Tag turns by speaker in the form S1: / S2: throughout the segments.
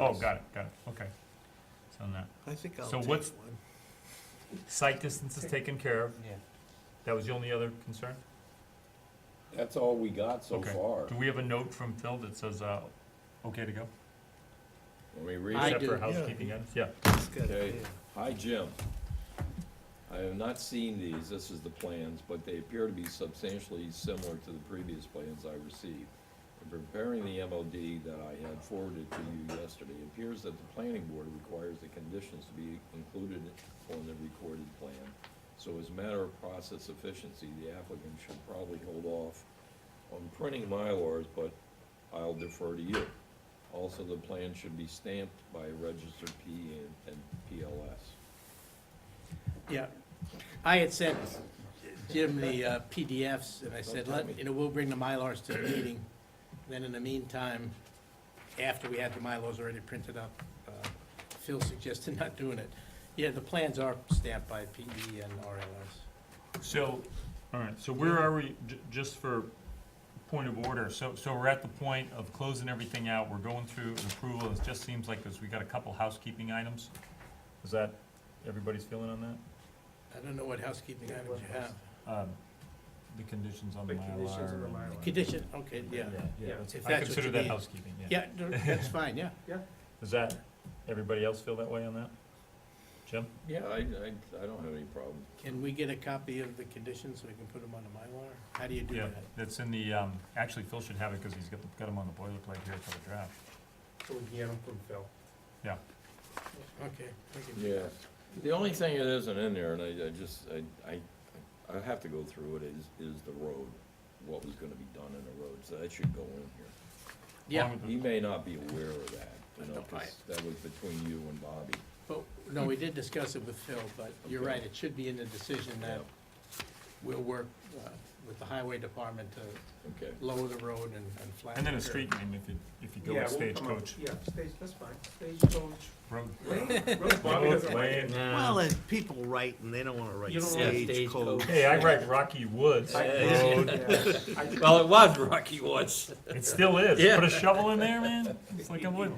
S1: Oh, got it, got it, okay. So not,
S2: I think I'll
S1: So
S2: take
S1: what's-
S2: one.
S1: sight distance is taken care of,
S3: Yeah.
S1: that was the only other concern?
S4: That's all we got so
S1: Okay.
S4: far.
S1: Do we have a note from Phil that says, uh, okay to go?
S4: Let me read
S3: I
S4: it.
S1: Except for
S3: do.
S1: housekeeping items, yeah.
S2: It's got-
S4: Okay.
S2: yeah.
S4: Hi, Jim. I have not seen these, this is the plans, but they appear to be substantially similar to the previous plans I received. In preparing the MOD that I had forwarded to you yesterday, it appears that the planning board requires the conditions to be included on the recorded plan. So as a matter of process efficiency, the applicant should probably hold off on printing Mylars, but I'll defer to you. Also, the plan should be stamped by a registered P E and, and PLS.
S3: Yeah, I had sent Jim the uh, PDFs, and I said, let, you know, we'll bring the Mylars to the meeting. Then in the meantime, after we had the Mylars already printed up, uh, Phil suggested not doing it. Yeah, the plans are stamped by E PE and RLS.
S1: So, all right, so where are we, j- just for point of order, so, so we're at the point of closing everything out, we're going through an approval, it just seems like this, we got a couple housekeeping items. Is that, everybody's feeling on that?
S3: I don't know what housekeeping items you have.
S1: Um, The conditions on the
S5: The
S1: Mylar.
S5: conditions of the
S1: and-
S5: Mylar.
S3: Condition, okay, yeah.
S1: Yeah,
S5: Yeah.
S1: that's-
S3: If
S1: I
S3: that's what
S1: consider
S3: you
S1: that
S3: need.
S1: housekeeping, yeah.
S3: Yeah, no, that's fine, yeah.
S1: Does that, everybody else feel that way on that? Jim?
S4: Yeah. I, I, I don't have any problem.
S3: Can we get a copy of the conditions so we can put them on the Mylar? How do you do
S1: Yeah,
S3: that?
S1: that's in the, um, actually Phil should have it, cause he's got, the- got him on the boilerplate here for the draft.
S5: So we can get them from Phil.
S3: Okay. we can do
S4: Yeah,
S3: that.
S4: the only thing that isn't in there, and I, I just, I, I, I have to go through it, is, is the road, what was gonna be done in the road, so that should go in here.
S3: Yeah.
S1: Along with the-
S4: He may not be aware of that, you know,
S3: No, I-
S4: 'cause that was between you and Bobby.
S3: But, no, we did discuss it with Phil, but you're right, it should be in the decision that we'll work uh, with the highway department to
S4: Okay,
S3: lower the road and, and flatten.
S1: And then a
S3: the
S1: street
S3: curve.
S1: name if you, if you go
S5: Yeah,
S1: with
S5: we'll come up-
S1: Stagecoach
S5: Yeah, stage, that's fine, stagecoach.
S1: Road.
S5: Road- Road Bobby doesn't like it.
S2: Well, and people write and they don't wanna write
S5: You don't wanna-
S2: stagecoach.
S1: Hey, I write Rocky Woods Road.
S5: Yeah. I-
S6: Well, it was Rocky Woods.
S1: It still is.
S6: Yeah.
S1: Put a shovel in there, man. It's like a wood.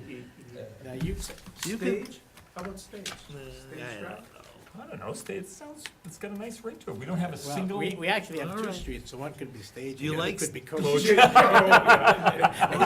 S3: Now, you,
S2: You can-
S5: Stage, how about stage? Stage
S2: yeah.
S5: drive?
S1: I don't know. State, it sounds, it's got a nice ring to it. We don't have a
S3: well,
S1: single.
S3: we, we actually have
S2: All
S3: two
S2: right.
S3: streets, so one could be staged,
S2: Do you
S3: the other
S2: like
S3: could be
S1: Coach.
S3: coached.
S2: Oh,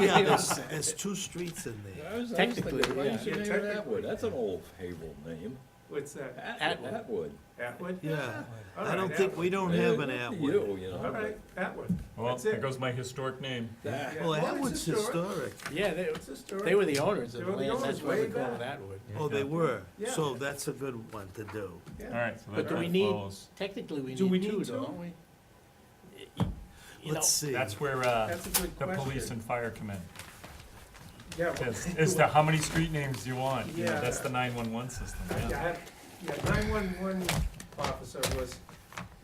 S2: yeah, there's, there's two streets in there.
S4: I was, I was
S3: Technically,
S4: thinking, why
S3: yeah.
S4: is your
S5: Yeah,
S4: name
S5: technically,
S4: Atwood, that's an old Havel name,
S5: What's that,
S3: Atwood.
S4: Atwood.
S5: Atwood?
S2: Yeah,
S5: All
S2: I don't
S5: right,
S2: think, we
S5: Atwood.
S2: don't have
S4: Yeah,
S2: an
S4: good for
S2: Atwood.
S4: You, you
S5: All
S4: know,
S5: right, Atwood,
S1: well,
S5: that's it.
S1: there goes my historic name.
S4: that,
S5: Yeah,
S2: Well,
S5: it's
S2: Atwood's historic.
S3: Yeah, they,
S5: It's historic.
S3: they were the owners of
S5: They
S3: the
S5: were the
S3: land, that's
S5: owners
S3: why we
S5: way
S3: call it
S5: back.
S3: Atwood.
S2: Oh, they were,
S5: Yeah.
S2: so that's a good one to do.
S1: All right. So that
S3: But do we
S1: kinda
S3: need-
S1: follows.
S3: Technically, we
S5: Do we
S3: need two,
S5: need two?
S3: though, don't we? Y- y- You know,
S2: Let's see.
S1: That's where uh,
S5: That's a good
S1: the police
S5: question.
S1: and fire come in.
S5: Yeah, well,
S1: As, as to how many street names you want. You know,
S5: Yeah.
S1: that's the 911 system.
S5: I- I
S1: Yeah.
S5: had- Yeah, nine-one-one officer was,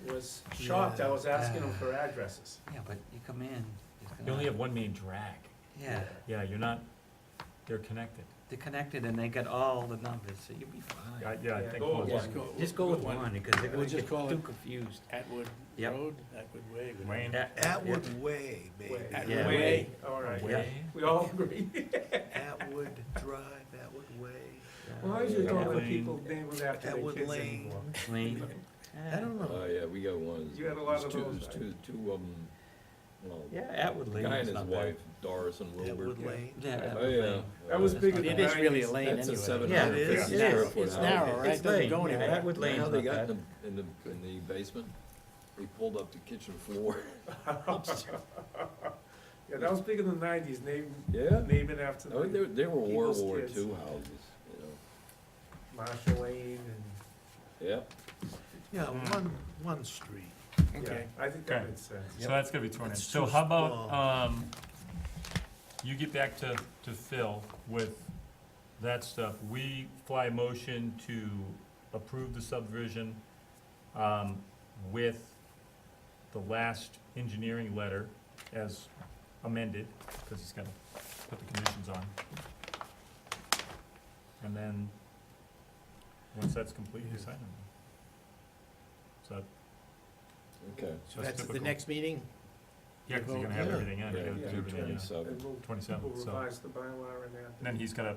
S5: was shocked, I was asking him for addresses.
S6: Yeah, but you come in. it's gonna-
S1: You only have one main drag.
S6: Yeah,
S1: Yeah, you're not. They're connected.
S6: they're connected and they got all the numbers, so you'll be fine.
S1: I, yeah, I
S5: Yeah,
S1: think.
S5: go
S1: we'll-
S3: Just go.
S6: Just go with one because they're
S3: We'll
S6: gonna
S3: just
S6: get
S3: call it-
S6: too confused.
S3: Atwood
S6: Yep.
S3: Road, Atwood Way. whatever.
S1: Wayne.
S6: At-
S2: Atwood Way, maybe.
S5: Way,
S3: Atwood
S6: Yeah.
S5: Way, all right,
S6: Way.
S1: Wayne.
S5: we all agree.
S2: Atwood Drive, Atwood Way,
S6: yeah,
S5: Why is it all the
S1: Lane.
S5: people name them after their
S2: Atwood
S5: kids
S2: Lane.
S5: anymore?
S6: Lane.
S2: I don't know.
S4: Oh, yeah, we got one.
S5: You had a lot
S4: There's
S5: of
S4: two-
S5: those,
S4: there's
S5: I-
S4: Two, two of them, well,
S6: Yeah, Atwood
S4: the
S6: Lane
S4: guy and
S6: is
S4: his
S6: not bad.
S4: wife, Doris and Wilbur.
S2: Atwood Lane.
S6: Yeah,
S4: Oh,
S6: Atwood
S4: yeah.
S6: Lane.
S5: That was
S4: Uh,
S5: big in the
S3: It is really a lane anyway.
S4: That's a seven
S6: Yeah,
S4: hundred
S2: it
S4: fifty
S2: is.
S4: square
S2: It's-
S4: foot
S3: it's
S4: house.
S3: narrow, right?
S6: It's
S3: It doesn't
S6: lane,
S3: go anywhere.
S6: yeah, Atwood
S4: You know
S6: Lane's
S4: how
S6: not
S4: they got
S6: bad.
S4: in the, in the, in the basement? They pulled up the kitchen floor.
S5: Yeah, that was big in the nineties, name,
S4: Yeah.
S5: name it after
S4: Oh, they,
S5: the
S4: they were World
S5: People's
S4: War
S5: kids.
S4: II houses, you know,
S5: Marshall Lane
S4: yeah.
S2: Yeah, one, one street.
S5: and, yeah,
S3: Okay.
S5: I think
S1: Okay.
S5: that makes sense.
S1: So that's gonna be torn in.
S2: That's
S1: So
S2: too
S1: how about,
S2: small.
S1: um, you get back to, to Phil with that stuff. We fly a motion to approve the subdivision, um, with the last engineering letter as amended, because he's gonna put the conditions on. And then, once that's complete, you sign them. So,
S4: Okay.
S3: So that's the
S1: typical.
S3: next meeting?
S1: yeah, 'cause you're gonna have everything in, you gotta do
S5: Yeah.
S1: everything in.
S5: And we'll,
S1: 27,
S5: we'll
S1: so-
S5: revise the bylaw and that.
S1: And then he's gotta